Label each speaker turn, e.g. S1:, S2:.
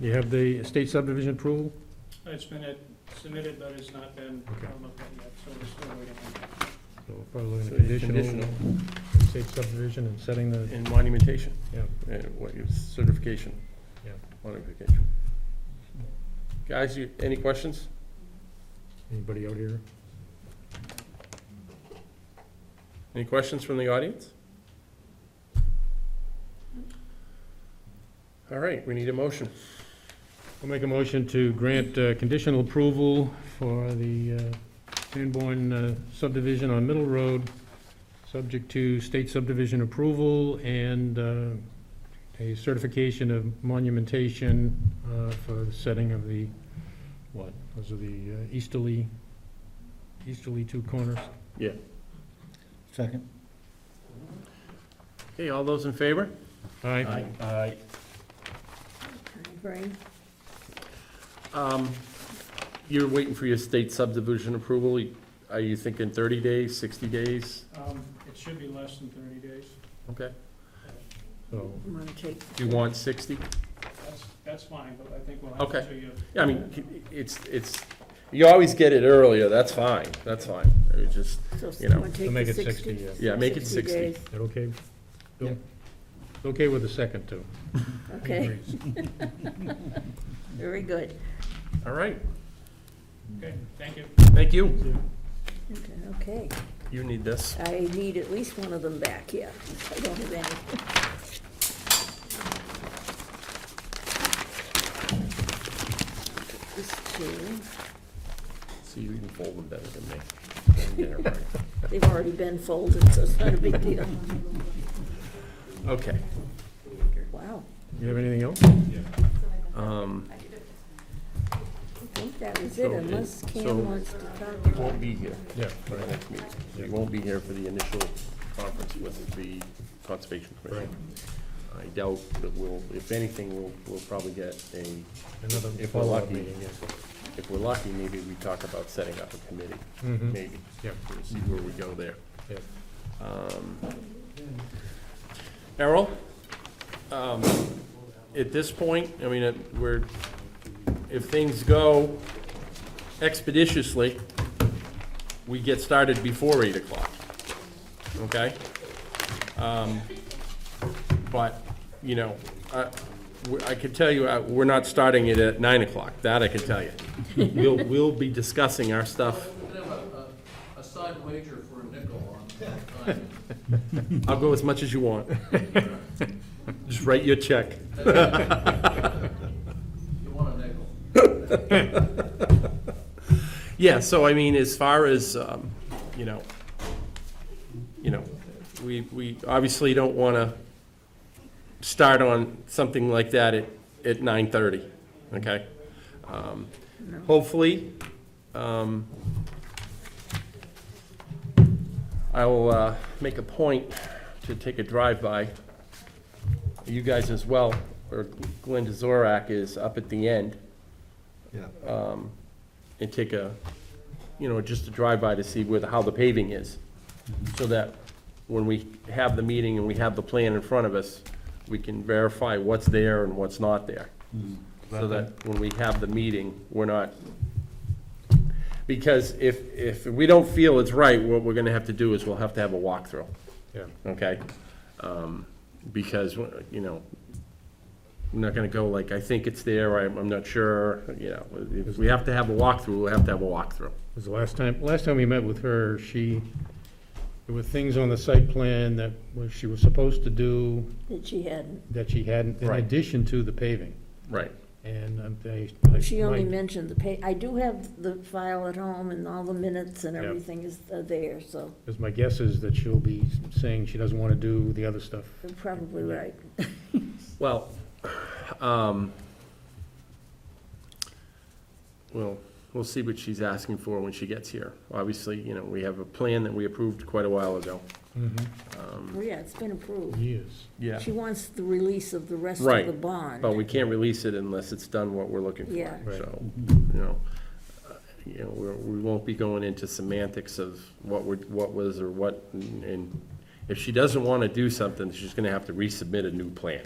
S1: You have the estate subdivision approval?
S2: It's been uh, submitted, but it's not been
S1: Okay.
S2: uh, looked at yet, so we're still waiting. on that.
S1: So we're probably looking
S3: So
S1: at
S3: it's
S1: conditional,
S3: conditional.
S1: estate subdivision and setting the,
S3: And monumentation,
S1: yeah,
S3: and what your certification.
S1: Yeah.
S3: Modification. Guys, you, any questions?
S1: anybody out here?
S3: Any questions from the audience? All right, we need a motion.
S1: I'll make a motion to grant uh, conditional approval for the uh, Sanborn uh, subdivision on Middle Road, subject to state subdivision approval and uh, a certification of monumentation uh, for the setting of the, what, those are the uh, easterly, easterly two corners.
S4: Second.
S3: Okay, all those in favor?
S1: Aye.
S4: Aye.
S5: Right.
S3: Um, You're waiting for your state subdivision approval. Are you thinking 30 days, 60 days?
S2: Um, It should be less than 30 days.
S3: Okay.
S1: So,
S5: I'm gonna take,
S3: Do you want 60?
S2: That's, that's fine, but I think we'll have
S3: Okay.
S2: to show you.
S3: Yeah, I mean, it's, it's, you always get it earlier, that's fine, that's fine. It was just,
S5: so
S3: You know.
S5: someone take
S1: make
S5: the
S1: it
S5: sixty.
S1: 60, yeah.
S3: Yeah, make it 60.
S5: days,
S1: That okay? Bill?
S3: Yeah.
S1: It's Okay with the second, too.
S5: Okay, very good.
S3: all right,
S2: Okay, thank you.
S3: thank you.
S5: Okay,
S3: You need this.
S5: I need at least one of them back, yeah. I don't have any. This two,
S3: See, you can fold them better than me.
S5: they've already been folded, so it's not a big deal.
S3: Okay.
S5: Wow,
S1: You have anything else?
S3: um,
S5: I think that was it,
S3: So, it-
S5: unless
S3: so-
S5: Cam wants to
S3: You
S5: talk.
S3: won't be here
S1: Yeah.
S3: for the next meeting. You won't be here for the initial conference with the Conservation Commission. I doubt that we'll, if anything, we'll, we'll probably get a,
S1: Another
S3: If we're
S1: follow-up
S3: lucky.
S1: meeting, yeah.
S3: if we're lucky, maybe we talk about setting up a committee,
S1: Mhm.
S3: maybe.
S1: Yeah.
S3: We'll See where we go there.
S1: Yeah.
S3: Um, Errol, um, at this point, I mean, it- we're, if things go expeditiously, we get started before eight o'clock, okay? Um, But, you know, I, we- I could tell you, uh, we're not starting it at nine o'clock, that I can tell you. We'll, we'll be discussing our stuff.
S6: We're gonna have a, a, a side wager for a nickel on, on,
S3: I'll go as much as you want. Just write your check.
S6: you want a nickel.
S3: Yeah, so I mean, as far as, um, you know, you know, we, we obviously don't want to start on something like that at, at nine thirty, okay? Um, Hopefully, um, I will, uh, make a point to take a drive-by. You guys as well, or Glenn Zorak is up at the end
S4: Yeah.
S3: um, and take a, you know, just a drive-by to see where, the- how the paving is. So that when we have the meeting and we have the plan in front of us, we can verify what's there and what's not there. So that when we have the meeting, we're not, because if, if we don't feel it's right, what we're gonna have to do is we'll have to have a walkthrough
S1: Yeah.
S3: okay? Um, Because, you know, I'm not gonna go like, I think it's there, I'm, I'm not sure, you know. If we have to have a walkthrough, we'll have to have a walkthrough.
S1: Because the last time, last time we met with her, she, there were things on the site plan that was- she was supposed to do
S5: That she hadn't.
S1: that she hadn't, in
S3: Right.
S1: addition to the paving.
S3: Right.
S1: And um, they.
S5: Oh, She only
S1: my-
S5: mentioned the pay, I do have the file at home and all the minutes and
S1: Yeah.
S5: everything is are there, so
S1: Because my guess is that she'll be saying she doesn't want to do the other stuff.
S5: you're probably right.
S3: Well, um, well, we'll see what she's asking for when she gets here. Obviously, you know, we have a plan that we approved quite a while ago.
S5: Yeah, it's been approved.
S1: Years.
S3: Yeah.
S5: She wants the release of the rest
S3: Right.
S5: of the bond.
S3: But we can't release it unless it's done what we're looking for.
S5: Yeah.
S1: Right.
S3: So, you know, uh, you know, we're- we won't be going into semantics of what would, what was or what, and- and if she doesn't want to do something, she's going to have to resubmit a new plan.